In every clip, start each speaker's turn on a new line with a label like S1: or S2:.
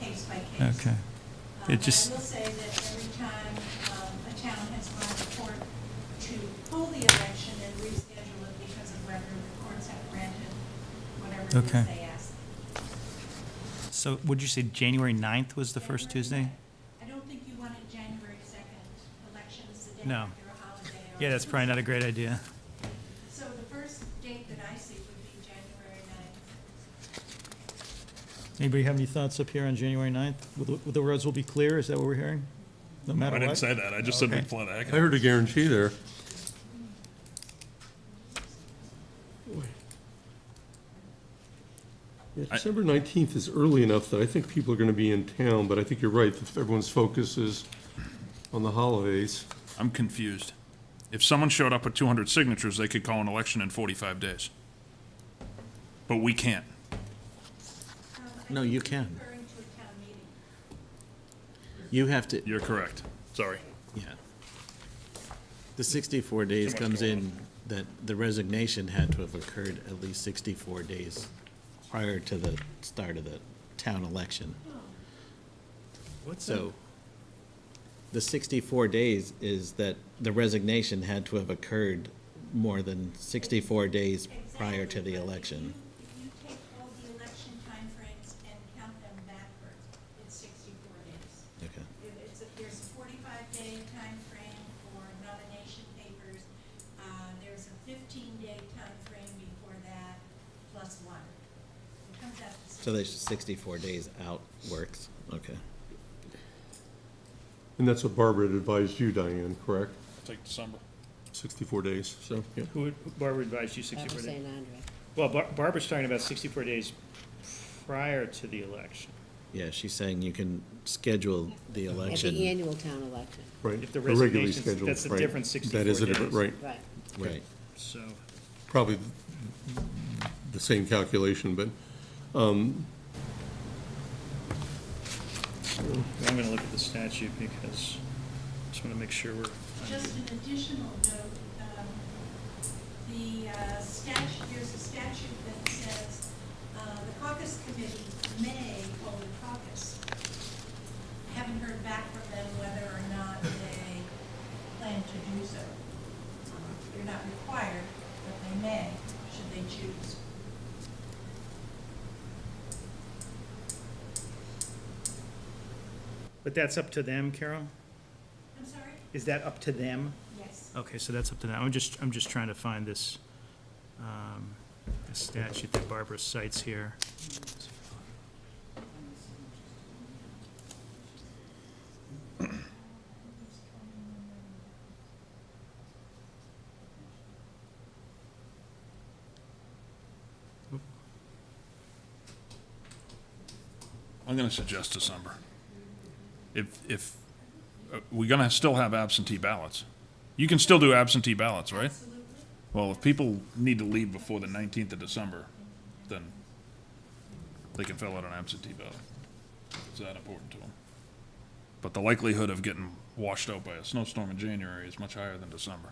S1: case by case.
S2: Okay.
S1: Uh, But
S2: It
S1: I will
S2: just-
S1: say that every time um, a town has gone to court to pull the election and reschedule it because of whether the courts have granted whatever it
S2: Okay.
S1: is they ask.
S2: So would you say January 9th was the first Tuesday?
S1: I don't think you wanted January 2nd, elections the day
S2: No.
S1: after a holiday. or-
S2: Yeah, that's probably not a great idea.
S1: So the first date that I see would be January 9th.
S2: Anybody have any thoughts up here on January 9th? Will the- The roads will be clear, is that what we're hearing? No matter
S3: I
S2: what?
S3: didn't say that, I just said
S2: Okay.
S3: we'd flood
S4: I heard a guarantee there. Yeah,
S3: I-
S4: December 19th is early enough that I think people are going to be in town, but I think you're right, that everyone's focus is on the holidays.
S3: I'm confused. If someone showed up with two hundred signatures, they could call an election in forty-five days. But we can't.
S1: Um, I
S5: No,
S1: think
S5: you
S1: you're
S5: can.
S1: Referring to a town meeting.
S5: You have to,
S3: You're correct. Sorry.
S5: yeah. The 64 days
S3: much
S5: comes
S3: going
S5: in that the resignation had to have occurred at least 64 days prior to the start of the town election. So the 64 days is that the resignation had to have occurred more than 64 days prior to
S1: Exactly,
S5: the
S1: but if
S5: election.
S1: you- If you take all the election timeframes and count them backwards, it's sixty-four days.
S5: Okay.
S1: If it's, a- there's a forty-five day time frame for nomination papers, uh, there's a fifteen day time frame before that, plus one. It comes out to
S5: So there's
S1: 60.
S5: 64 days out works, okay.
S4: And that's what Barbara had advised you, Diane, correct?
S3: Take December.
S4: 64 days, so, yeah.
S6: Who, Barbara advised you
S7: After
S6: 64 days?
S7: St. Andre.
S6: Well, Bar- Barbara's talking about 64 days prior to the election.
S5: Yeah, she's saying you can schedule the
S7: At
S5: election.
S7: the annual town election,
S4: right.
S6: If the
S4: a regularly
S6: resignations-
S4: scheduled,
S6: that's a
S4: right.
S6: different
S4: That is a
S6: 64
S4: different, right.
S6: days.
S7: right.
S5: Right.
S6: So,
S4: probably the same calculation, but
S6: I'm going to look at the statute because I just want to make sure we're,
S1: Just an additional note, um, the uh, statute, there's a statute that says, uh, the caucus committee may hold a caucus. I haven't heard back from them whether or not they plan to do so. Um, They're not required, but they may, should they choose.
S6: but that's up to them, Carol?
S1: I'm sorry?
S6: Is that up to them?
S1: Yes.
S6: Okay, so that's up to them. I'm just, I'm just trying to find this um, this statute that Barbara cites here.
S3: I'm gonna suggest December. If, if, uh, we're gonna still have absentee ballots. You can still do absentee ballots, right?
S1: Absolutely.
S3: Well, if people need to leave before the nineteenth of December, then they can fill out an absentee ballot. It's that important to them. But the likelihood of getting washed out by a snowstorm in January is much higher than December.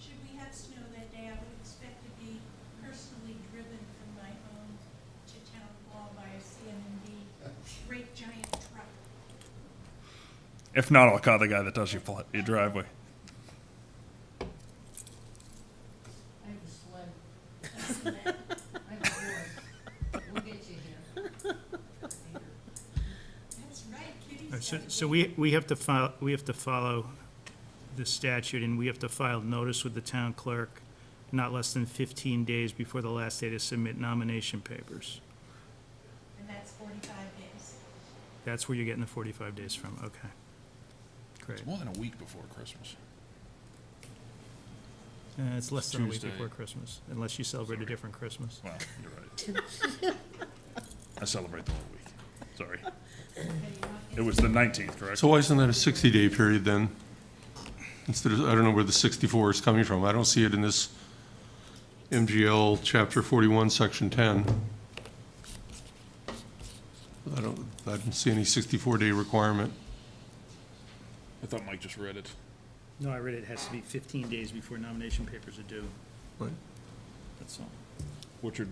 S1: Should we have snow that day, I would expect to be personally driven from my home to town hall by a CMMD great giant truck.
S3: If not, I'll call the guy that does your, pl- your driveway.
S8: I have a sled. I have a board. We'll get you here.
S1: That's right, Kitty's
S6: All right, Uh, So
S1: got a
S6: so
S1: big-
S6: we, we have to file, we have to follow the statute, and we have to file notice with the town clerk not less than 15 days before the last day to submit nomination papers.
S1: And that's forty-five days.
S6: That's where you're getting the 45 days from, okay. Great.
S3: It's more than a week before Christmas.
S6: Uh, It's less than a week
S3: Tuesday.
S6: before Christmas, unless you celebrate a different Christmas.
S3: Well, you're right. I celebrate the whole week. Sorry. It was the nineteenth, correct?
S4: So why isn't that a 60-day period then? Instead of, I don't know where the 64 is coming from. I don't see it in this MGL Chapter 41, Section 10. I don't, I didn't see any 64-day requirement.
S3: I thought Mike just read it.
S6: No, I read it has to be 15 days before nomination papers are due,
S4: Right.
S6: that's all.
S3: What you're